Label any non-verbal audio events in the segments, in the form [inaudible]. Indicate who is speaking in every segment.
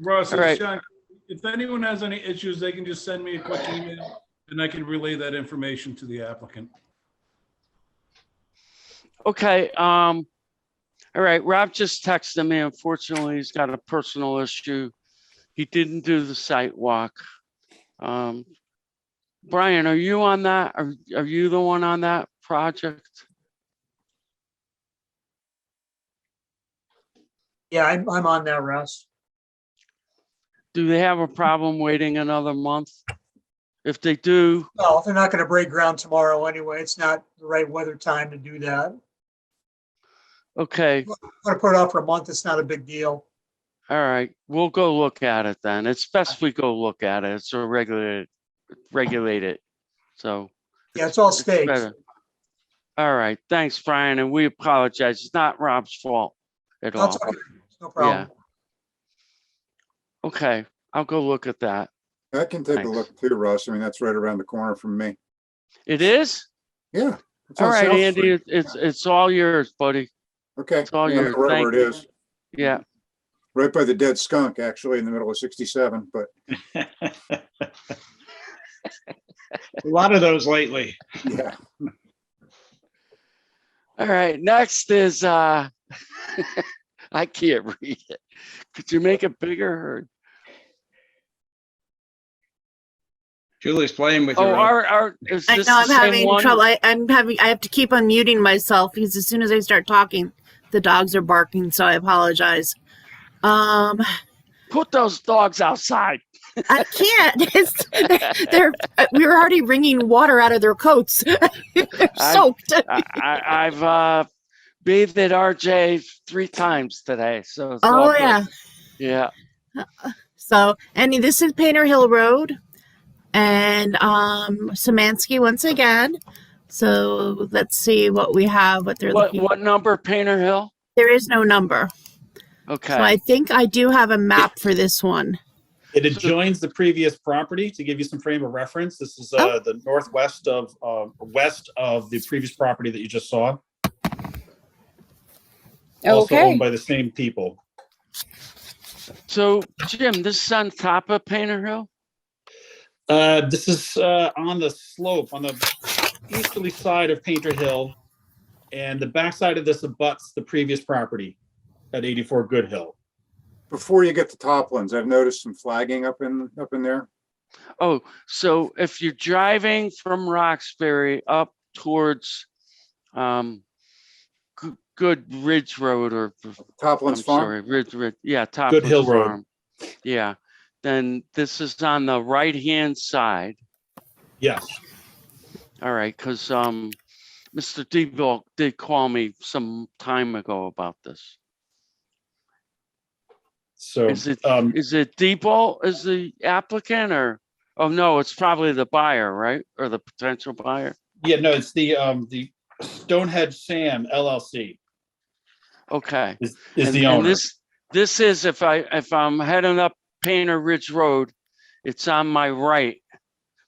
Speaker 1: Russ,
Speaker 2: All right.
Speaker 1: it's Sean. If anyone has any issues, they can just send me a quick email and I can relay that information to the applicant.
Speaker 2: Okay, um, all right, Rob just texted me. Unfortunately, he's got a personal issue. He didn't do the site walk. Um, Brian, are you on that? Are, are you the one on that project?
Speaker 3: Yeah, I'm, I'm on that, Russ.
Speaker 2: Do they have a problem waiting another month? If they do,
Speaker 3: No, they're not gonna break ground tomorrow anyway. It's not the right weather time to do that. I'm
Speaker 2: okay,
Speaker 3: gonna put it off for a month. It's not a big deal.
Speaker 2: all right, we'll go look at it then. It's best we go look at it. It's a regulated, regulated, so.
Speaker 3: Yeah, it's all
Speaker 2: It's
Speaker 3: stakes.
Speaker 2: better. All right, thanks, Brian, and we apologize. It's not Rob's fault at all.
Speaker 3: That's okay. No problem.
Speaker 2: Okay, I'll go look at that.
Speaker 4: I can take a
Speaker 2: Thanks.
Speaker 4: look too, Russ. I mean, that's right around the corner from me.
Speaker 2: It is?
Speaker 4: Yeah. it's
Speaker 2: All
Speaker 4: on
Speaker 2: right,
Speaker 4: South
Speaker 2: Andy,
Speaker 4: Street.
Speaker 2: it- it's, it's all yours, buddy.
Speaker 4: Okay.
Speaker 2: it's all
Speaker 4: yeah,
Speaker 2: yours.
Speaker 4: Wherever
Speaker 2: Thank
Speaker 4: it
Speaker 2: you.
Speaker 4: is,
Speaker 2: Yeah,
Speaker 4: right by the dead skunk, actually, in the middle of sixty-seven, but
Speaker 5: A lot of those lately.
Speaker 4: yeah.
Speaker 2: all right, next is, uh, [laughs] I can't read it. Could you make it bigger?
Speaker 5: Julie's playing with
Speaker 2: Oh,
Speaker 5: your.
Speaker 2: our, our, is
Speaker 6: I
Speaker 2: this
Speaker 6: know
Speaker 2: the
Speaker 6: I'm
Speaker 2: same
Speaker 6: having trouble.
Speaker 2: one?
Speaker 6: I, I'm having. I have to keep unmuting myself because as soon as I start talking, the dogs are barking. So I apologize. Um,
Speaker 2: Put those dogs outside.
Speaker 6: I can't. [laughs] It's, they're, they're. uh, We were already wringing water out of their coats. [laughs] they're
Speaker 2: I-
Speaker 6: soaked.
Speaker 2: I, I, I've, uh, bathed at RJ three times today, so. it's all
Speaker 6: Oh
Speaker 2: good.
Speaker 6: yeah.
Speaker 2: Yeah.
Speaker 6: So and this is Painter Hill Road, and um, Samansky once again. So let's see what we have. What they're
Speaker 2: What,
Speaker 6: looking.
Speaker 2: what number, Painter Hill?
Speaker 6: There is no number. So I
Speaker 2: Okay,
Speaker 6: think I do have a map for this one.
Speaker 7: It adjoins the previous property to give you some frame of reference. This is uh,
Speaker 2: Oh.
Speaker 7: the northwest of, uh, west of the previous property that you just saw. Also
Speaker 6: Okay.
Speaker 7: owned by the same people.
Speaker 2: so Jim, this is on top of Painter Hill?
Speaker 7: Uh, This is uh, on the slope, on the easterly side of Painter Hill. And the backside of this abuts the previous property at 84 Good Hill.
Speaker 4: Before you get to Toplands, I've noticed some flagging up in, up in there.
Speaker 2: Oh, so if you're driving from Roxbury up towards um G- Good Ridge Road or I'm
Speaker 4: Toplands Farm.
Speaker 2: sorry, Ridge Ridge, yeah, top.
Speaker 7: Good Hill Road.
Speaker 2: Yeah, then this is on the right-hand side.
Speaker 7: Yes.
Speaker 2: All right, because um Mr. Debo did call me some time ago about this.
Speaker 7: So
Speaker 2: Is it-
Speaker 7: um,
Speaker 2: Is it Debo is the applicant or, oh no, it's probably the buyer, right? Or the potential buyer?
Speaker 7: Yeah, no, it's the, um, the Stonehenge Sam LLC
Speaker 2: Okay.
Speaker 7: is, is
Speaker 2: And-
Speaker 7: the
Speaker 2: and
Speaker 7: owner.
Speaker 2: This this is if I, if I'm heading up Painter Ridge Road, it's on my right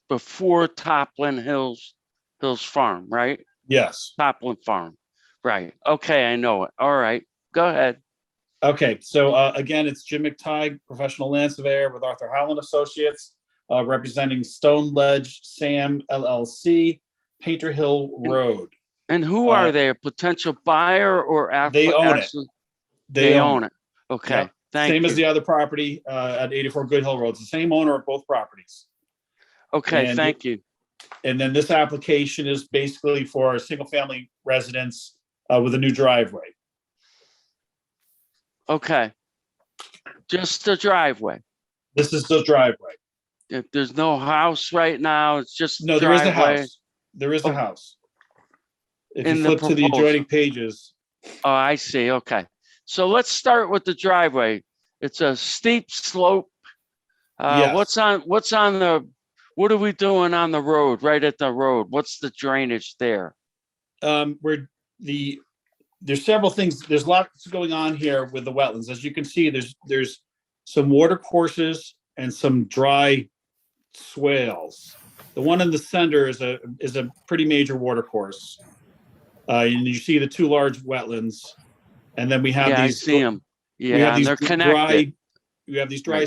Speaker 2: before Toplin Hills, Hills Farm, right?
Speaker 7: Yes.
Speaker 2: Toplin Farm, right? Okay, I know it. All right, go ahead.
Speaker 7: Okay, so uh, again, it's Jim McTighe, professional land surveyor with Arthur Howland Associates, uh, representing Stone Ledge Sam LLC, Painter Hill Road.
Speaker 2: And who are
Speaker 7: Uh,
Speaker 2: they? A potential buyer or? app-
Speaker 7: They own it.
Speaker 2: actually- They own it. Okay, thank
Speaker 7: Same as the
Speaker 2: you.
Speaker 7: other property uh, at 84 Good Hill Road. It's the same owner of both properties.
Speaker 2: Okay,
Speaker 7: and-
Speaker 2: thank you.
Speaker 7: And then this application is basically for a single-family residence uh, with a new driveway.
Speaker 2: Okay. Just the driveway.
Speaker 7: This is the driveway.
Speaker 2: If there's no house right now, it's just.
Speaker 7: No, there is a
Speaker 2: driveway.
Speaker 7: house. There is
Speaker 2: Oh.
Speaker 7: a house. If
Speaker 2: In
Speaker 7: you
Speaker 2: the
Speaker 7: flip to the
Speaker 2: proposal.
Speaker 7: adjoining pages,
Speaker 2: Oh, I see. Okay. So let's start with the driveway. It's a steep slope. Uh,
Speaker 7: Yes.
Speaker 2: what's on, what's on the, what are we doing on the road, right at the road? What's the drainage there?
Speaker 7: um, we're the, there's several things, there's lots going on here with the wetlands. As you can see, there's, there's some water courses and some dry swales. The one in the center is a, is a pretty major water course. Uh, and you see the two large wetlands. And then we have
Speaker 2: Yeah, I
Speaker 7: these.
Speaker 2: see them.
Speaker 7: we have
Speaker 2: Yeah, and
Speaker 7: these
Speaker 2: they're
Speaker 7: dry-
Speaker 2: connected.
Speaker 7: We have these dry